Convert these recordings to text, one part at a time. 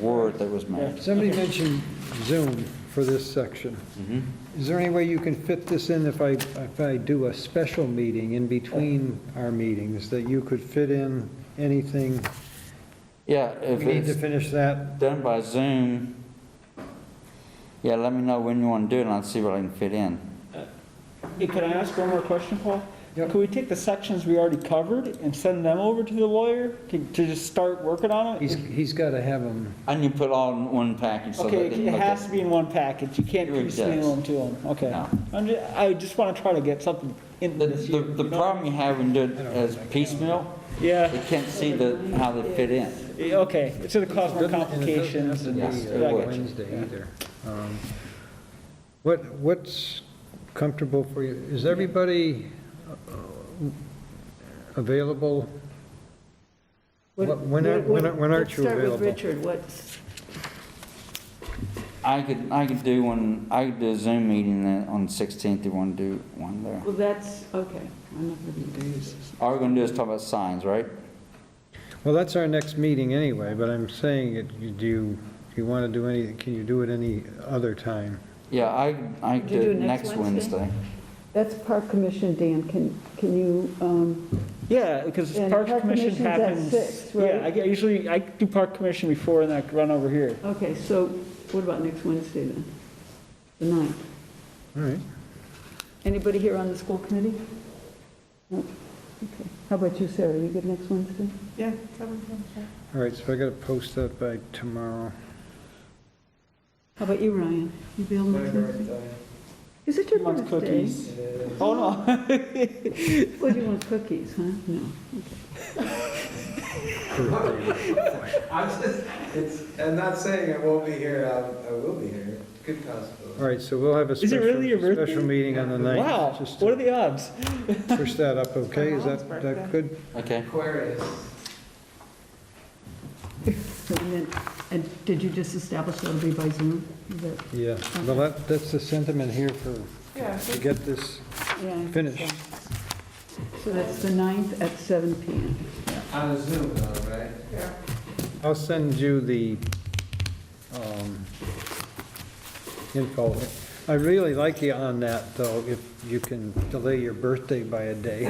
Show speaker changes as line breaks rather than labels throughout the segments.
word that was
Yeah.
meant.
Somebody mentioned Zoom for this section. Is there any way you can fit this in if I, if I do a special meeting in between our meetings, that you could fit in anything?
Yeah,
We
if
need to
it's
finish that.
done by Zoom, yeah, let me know when you want to do it, and I'll see what I can fit in.
Hey, Can I ask one more question, Paul?
Yep.
Could we take the sections we already covered and send them over to the lawyer to to just start working on
He's,
it?
he's got to have them.
And you put all in one package, so
Okay,
that
it
they look
has to
at.
be in one package, you can't
It really
piecemeal them to them, okay.
No.
I'm ju- I just want to try to get something in
The,
this
the,
year.
the
you know?
problem you have when you do it as piecemeal, you
Yeah,
can't see the, how they fit in.
eh, okay, it's gonna cause more complications and,
be,
yeah,
Yes, it
I get
would.
you.
Wednesday either. Um, What, what's comfortable for you? Is everybody uh, available?
What-
When- When are- when are- when
what-
aren't you
Let's start with
available?
Richard, what's,
I could, I could do one, I could do a Zoom meeting then on sixteenth, you wanna do one there.
well, that's, okay, I'm not going to do this.
All we're gonna do is talk about signs, right?
Well, that's our next meeting anyway, but I'm saying, it. you- do you, if you want to do any, can you do it any other time?
Yeah, I, I could
Could you
do it next Wednesday.
That's Park Commission, Dan, can, can you, um,
Yeah, because
And
park
park
commission
commission's at
happens.
six,
Yeah,
right?
I get- usually, I do park commission before and I run over here.
Okay, so what about next Wednesday then? The 9th?
All right.
Anybody here on the school committee? No? Okay.
how about you, Sarah, you good next Wednesday?
Yeah.
All right, so I got to post that by tomorrow.
How about you, Ryan? You available next Wednesday? Is it your
Wants
birthday?
cookies. Oh, no.
Well, you want cookies, huh? No.
I'm just, it's, I'm not saying I won't be here, I, I will be here, good
All
possibility.
right, so we'll have a
it really your
special,
birthday?
special meeting on the ninth.
Wow,
just to
what are the odds?
Push that up, okay? Is that, that good?
Okay.
Aquarius,
So then, and did you just establish that'll be by Zoom? Is that-
Yeah, well, that, that's the sentiment here for, to get this
yeah, I think
finished.
So So that's the 9th at seven PM.
on a Zoom though, right?
I'll send you the um, info. I really like you on that, though, if you can delay your birthday by a day.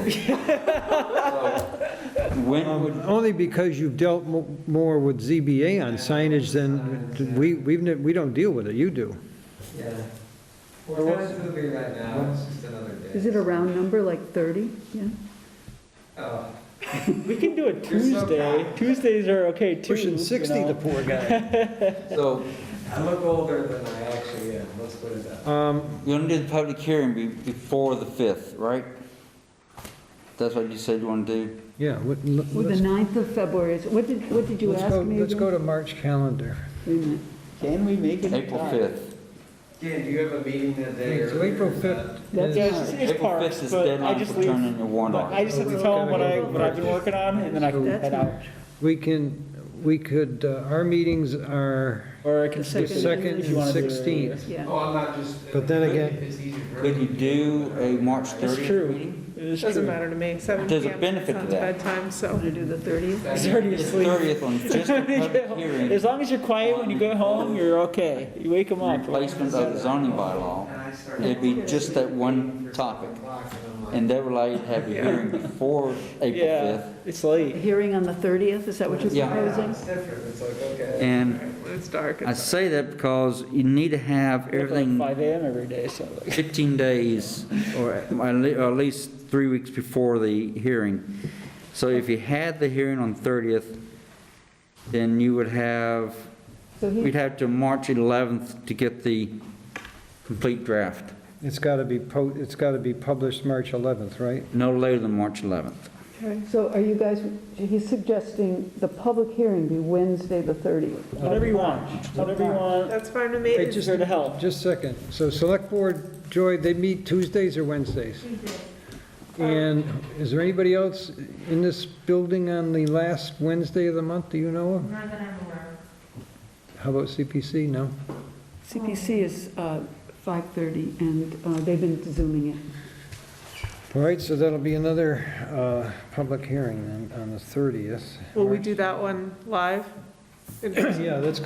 When would,
Only because you've dealt mo- more with ZBA on signage than, we, we've, ne- we don't deal with it, you do.
Yeah. We're tentatively right now, it's just another day.
Is it a round number, like 30? Yeah?
Oh,
We can do it
You're so
Tuesday.
kind.
Tuesdays are okay too.
Pushing
you
60,
know.
the poor guy.
so,
I look older than I actually am, let's put it that way.
Um,
you wanna do the public hearing be, before the fifth, right? That's what you said you wanna do?
Yeah. let-
Well, the
let's-
9th of February is, what did, what did you
let's
ask
go-
me?
Let's
again?
go to March calendar.
Wait a minute.
Can we make it? in
April
time?
fifth.
Dan, do you have a meeting that day?
Okay, So
earlier
April
than that?
5th
That's
Yeah,
is-
it's just- it's
April
parks,
fifth is
but I
deadline
just
for
leave.
turning your warrant
I
off.
just have to tell them what I, what I've been working on and then I can
That's
head out.
March.
we can, we could, uh, our meetings are
Or I can
The
skip
the
it
second
if
and
you
and
wanna do it.
sixteenth.
Yeah.
Oh, I'm not just.
But then again-
It's easier for
Could you
me.
do a March
It's
thirtieth
true.
meeting?
It is
Doesn't
true.
matter to me, seven
There's a
PM
benefit to
sounds
that.
bedtime, so.
Want to do the 30th?
It's already
It's
asleep.
thirtieth on just the public hearing,
As long as you're quiet when you go home, you're okay. You wake them up.
replacement of the zoning bylaw.
And I started
It'd be just that one topic,
o'clock and I'm like,
and they would like to have a hearing before April
Yeah,
fifth.
it's
A
late.
hearing on the 30th, is that what you're
Yeah.
"Ah,
proposing?
It's different, it's like, okay.
And
When it's dark,
I
it's
say that because you need to have
Wake up at
everything
Five AM every day, so.
15 days, or at or at least three weeks before the hearing. So if you had the hearing on 30th, then you would have,
So he-
we'd have to March 11th to get the complete draft,
It's got to be, po- it's got to be published March 11th, right?
no later than March 11th.
So are you guys, he's suggesting the public hearing be Wednesday, the 30th.
Whatever you want, whatever you want.
That's fine to me.
It's just there to help.
Just a second. So Select Board, Joy, they meet Tuesdays or Wednesdays? And is there anybody else in this building on the last Wednesday of the month, do you know of?
Not that I'm aware of.
How about CPC? No?
CPC is uh, 5:30, and uh, they've been zooming it.
All right, so that'll be another uh, public hearing then on the 30th.
Will we do that one live? In person?
Yeah, that's